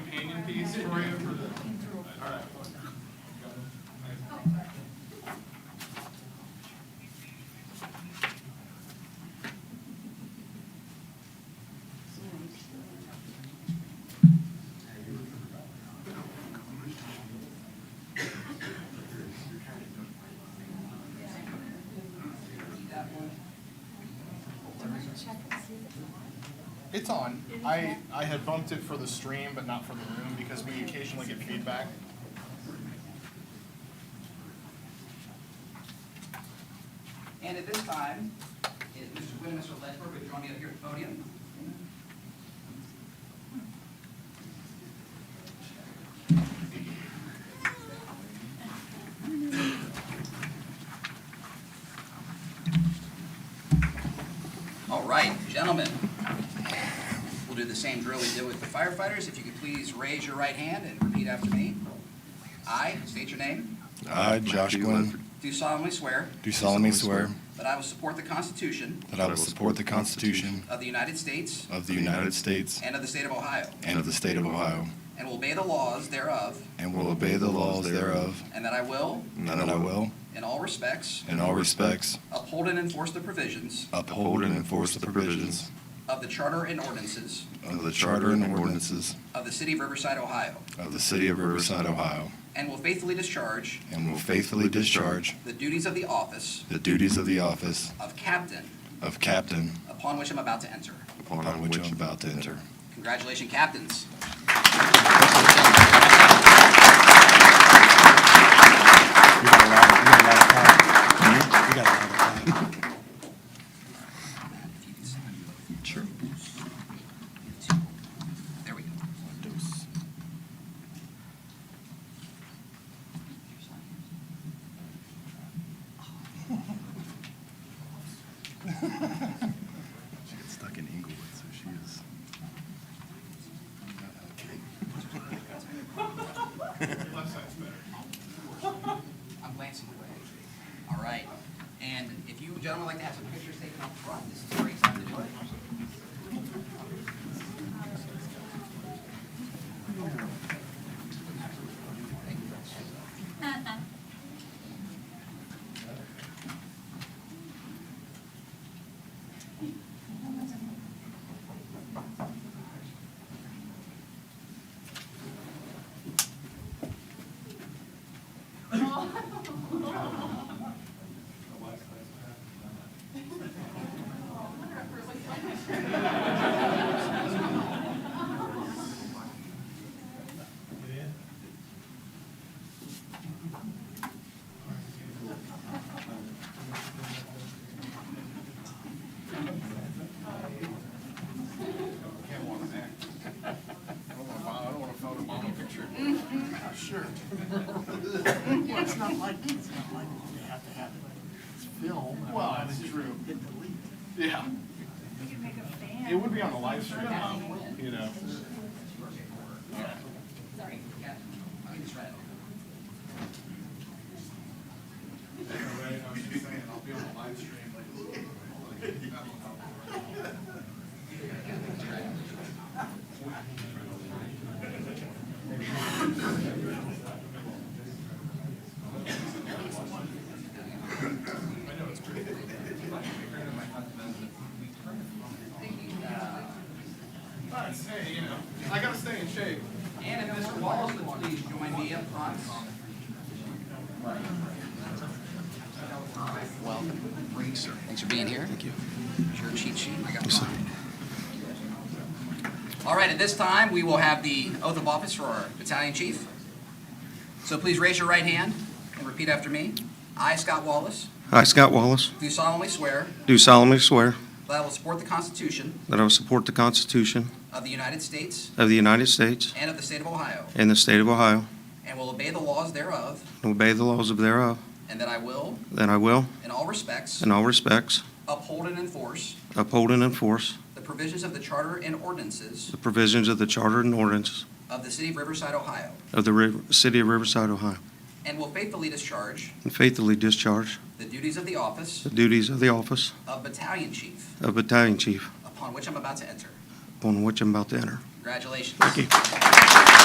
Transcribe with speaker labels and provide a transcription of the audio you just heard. Speaker 1: these for you for the, all right. It's on. I, I had bumped it for the stream, but not for the room because we occasionally get feedback.
Speaker 2: And at this time, if Mr. Quinn and Mr. Ledford would join me up here at the podium. All right, gentlemen, we'll do the same drill we did with the firefighters. If you could please raise your right hand and repeat after me. I state your name,
Speaker 3: I, Uh, Josh Glenn,
Speaker 2: do solemnly swear
Speaker 3: do solemnly swear
Speaker 2: that I will support the Constitution
Speaker 3: that I will support the Constitution
Speaker 2: of the United States
Speaker 3: of the United States
Speaker 2: and of the state of Ohio,
Speaker 3: and of the state of Ohio,
Speaker 2: and will obey the laws thereof,
Speaker 3: and will obey the laws thereof,
Speaker 2: and that I will,
Speaker 3: and that I will,
Speaker 2: in all respects,
Speaker 3: in all respects,
Speaker 2: uphold and enforce the provisions
Speaker 3: uphold and enforce the provisions
Speaker 2: of the charter and ordinances
Speaker 3: of the charter and ordinances
Speaker 2: of the city of Riverside, Ohio,
Speaker 3: of the city of Riverside, Ohio,
Speaker 2: and will faithfully discharge
Speaker 3: and will faithfully discharge
Speaker 2: the duties of the office
Speaker 3: the duties of the office
Speaker 2: of captain
Speaker 3: of captain
Speaker 2: upon which I'm about to enter.
Speaker 3: upon which I'm about to enter.
Speaker 2: Congratulations, captains.
Speaker 4: You got a lot of, you got a lot of time. You got a lot of time.
Speaker 2: If you can sign.
Speaker 3: Sure.
Speaker 2: There we go.
Speaker 3: She got stuck in Inglewood, so she is.
Speaker 1: Left side's better.
Speaker 2: I'm glancing away. All right. And if you gentlemen would like to have some pictures taken up front, this is a great time to do it.
Speaker 1: Can't want an act. I don't want to, I don't want to photo bomb a picture. Sure.
Speaker 5: Well, Mm-hmm. it's not like, it's not like they have to have it filmed.
Speaker 1: Well, that's true.
Speaker 5: Hit delete.
Speaker 1: Yeah,
Speaker 6: You can make a fan.
Speaker 1: it would be on the live stream, you know.
Speaker 2: Sorry. Yeah. I can just write it.
Speaker 1: I was just saying, I'll be on the live stream. But hey, you know, I gotta stay in shape.
Speaker 2: And if Mr. Wallace would please join me up front. Welcome. Thanks for being here. Thank you. Your cheat sheet, I got mine. All right, at this time, we will have the oath of office for our battalion chief. So please raise your right hand and repeat after me. I, Scott Wallace,
Speaker 7: I, Scott Wallace,
Speaker 2: do solemnly swear
Speaker 7: do solemnly swear
Speaker 2: that I will support the Constitution
Speaker 7: that I will support the Constitution
Speaker 2: of the United States
Speaker 7: of the United States
Speaker 2: and of the state of Ohio,
Speaker 7: and the state of Ohio,
Speaker 2: and will obey the laws thereof,
Speaker 7: and obey the laws of thereof,
Speaker 2: and that I will,
Speaker 7: that I will,
Speaker 2: in all respects,
Speaker 7: in all respects,
Speaker 2: uphold and enforce
Speaker 7: uphold and enforce
Speaker 2: the provisions of the charter and ordinances
Speaker 7: the provisions of the charter and ordinances
Speaker 2: of the city of Riverside, Ohio,
Speaker 7: of the Riv- city of Riverside, Ohio,
Speaker 2: and will faithfully discharge
Speaker 7: and faithfully discharge
Speaker 2: the duties of the office
Speaker 7: the duties of the office
Speaker 2: of battalion chief,
Speaker 7: of battalion chief,
Speaker 2: upon which I'm about to enter.
Speaker 7: upon which I'm about to enter.
Speaker 2: Congratulations.